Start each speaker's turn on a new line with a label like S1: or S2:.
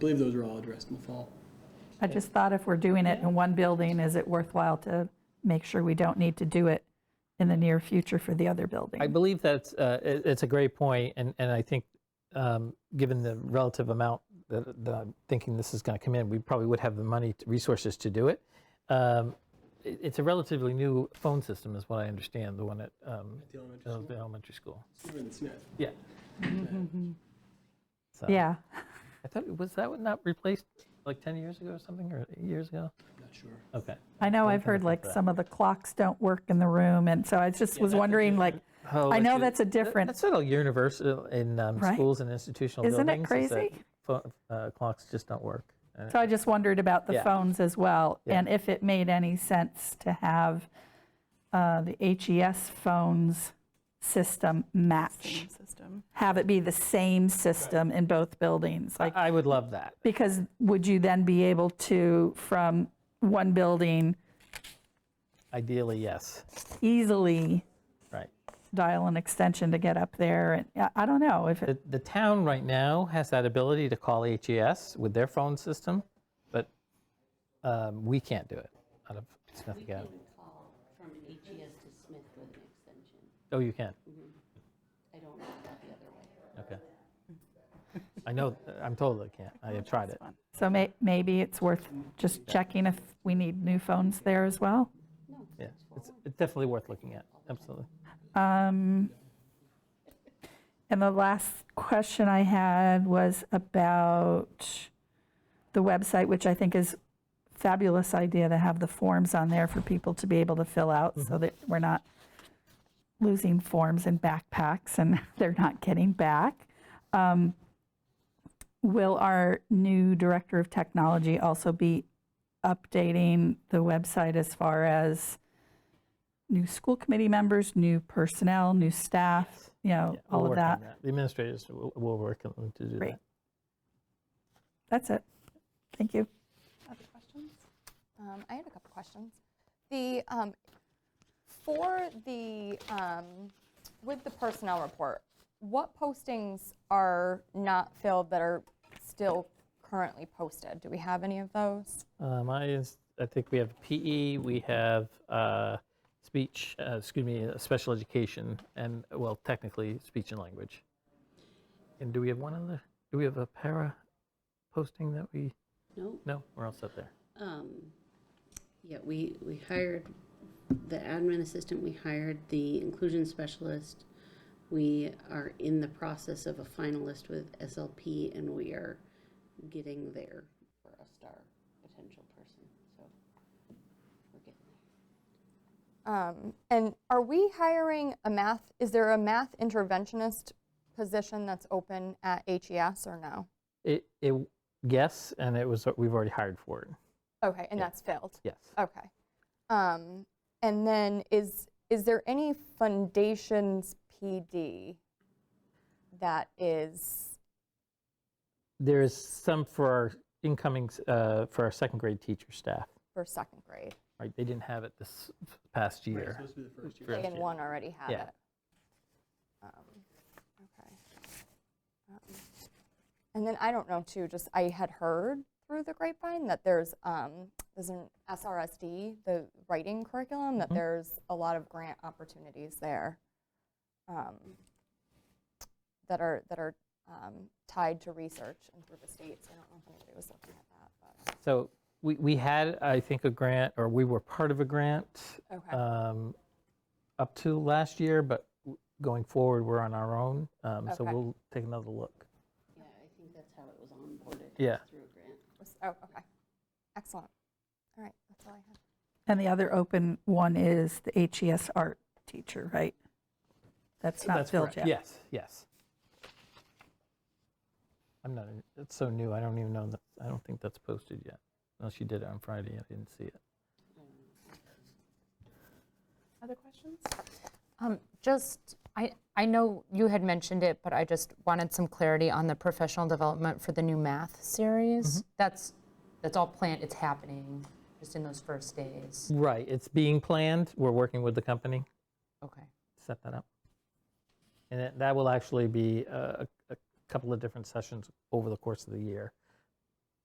S1: believe those are all addressed in the fall.
S2: I just thought if we're doing it in one building, is it worthwhile to make sure we don't need to do it in the near future for the other
S3: I
S2: building?
S3: believe that's, uh, it- it's a great point, and, and I think, um, given the relative amount that, that I'm thinking this is going to come in, we probably would have the money, to- resources to do it. Um, it- It's a relatively new phone system, is what I understand, the one at um,
S1: The elementary
S3: the
S1: school,
S3: elementary school.
S1: even the SNF.
S3: Yeah. So,
S2: Yeah,
S3: I thought, was that one not replaced like 10 years ago or something, or eight years ago?
S1: I'm not sure.
S3: Okay.
S2: I know I've
S3: kinda
S2: heard
S3: think
S2: like
S3: that.
S2: some of the clocks don't work in the room, and so I just was
S1: that's a
S2: wondering, like,
S3: Oh,
S2: I know
S3: you-
S2: that's a
S3: that-
S2: different-
S3: That's not a universal in um,
S2: Right.
S3: schools and institutional
S2: Isn't it
S3: buildings. is that
S2: crazy?
S3: pho- uh, Clocks just don't work. Uh,
S2: so I just wondered about the
S3: Yeah.
S2: phones as well,
S3: Yeah.
S2: and if it made any sense to have uh, the HES phones system match,
S4: Same system.
S2: have it be the same system in both buildings, like.
S3: I would love that.
S2: Because would you then be able to, from one building,
S3: Ideally, yes.
S2: easily
S3: Right.
S2: dial an extension to get up there? And I- I don't know if, it-
S3: The, the town right now has that ability to call HES with their phone system, but um, we can't do it out of Smith
S5: We can
S3: Academy.
S5: call from HES to Smith with an extension.
S3: Oh, you can.
S5: Mm-hmm. I don't know about the other way.
S3: Okay. I know. I'm told I can't. I have tried it.
S2: so may- maybe it's worth just checking if we need new phones there as well?
S3: Yeah, it's, it's definitely worth looking at. Absolutely.
S2: Um, And the last question I had was about the website, which I think is fabulous idea to have the forms on there for people to be able to fill out
S3: Mm-hmm.
S2: so that we're not losing forms in backpacks and they're not getting back. Um, Will our new director of technology also be updating the website as far as new school committee members, new personnel, new staff, you know,
S3: Yeah, we'll
S2: all of
S3: work on
S2: that?
S3: The administrators will, will work on them to do
S2: Great.
S3: that.
S2: That's it. Thank you.
S4: Other questions? Um, I had a couple questions. The, um, for the, um, with the personnel report, what postings are not filled that are still currently posted? Do we have any of those?
S3: Um, I, is- I think we have PE, we have uh, speech, uh, excuse me, uh, special education, and, well, technically, speech and language. And do we have one other, do we have a para posting that we,
S5: No,
S3: no, we're all set there.
S5: um, yeah, we, we hired the admin assistant, we hired the inclusion specialist. We are in the process of a finalist with SLP and we are getting there for a star potential person, so we're getting there.
S4: Um, And are we hiring a math, is there a math interventionist position that's open at HES or no?
S3: It, it, yes, and it was, we've already hired for it,
S4: Okay, and
S3: Yeah.
S4: that's filled?
S3: yes.
S4: Okay. Um, And then is, is there any foundations PD that is,
S3: There is some for our incoming, s- uh, for our second grade teacher staff,
S4: for second grade?
S3: right? They didn't have it this past
S1: Right, It's
S3: year.
S1: supposed to be the first year.
S3: First
S4: And
S3: year.
S4: one already had
S3: Yeah.
S4: it? Um, Okay. Um, And then I don't know too, just I had heard through the grapevine that there's, um, there's an SRSD, the writing curriculum, that there's a lot of grant opportunities there um, that are, that are um, tied to research and through the states. I don't know if anybody was looking at that, but,
S3: So we, we had, I think, a grant, or we were part of a grant
S4: okay.
S3: um, up to last year, but w- going forward, we're on our own. um, So
S4: Okay.
S3: we'll take another look.
S5: Yeah, I think that's how it was onboarded.
S3: Yeah.
S5: Through a grant.
S4: Was- Oh, okay. Excellent. All right, that's all I have.
S2: And the other open one is the HES art teacher, right? That's not
S3: That's
S2: filled
S3: correct.
S2: yet.
S3: Yes, yes. I'm not, in- it's so new, I don't even know, that I don't think that's posted yet. Unless you did it on Friday, I didn't see it.
S6: Other questions?
S7: Um, Just, I, I know you had mentioned it, but I just wanted some clarity on the professional development for the new math series. That's, that's all planned, it's happening, just in those first days.
S3: Right, it's being planned, we're working with the company.
S7: Okay.
S3: set that up. And that- that will actually be uh, a a couple of different sessions over the course of the year.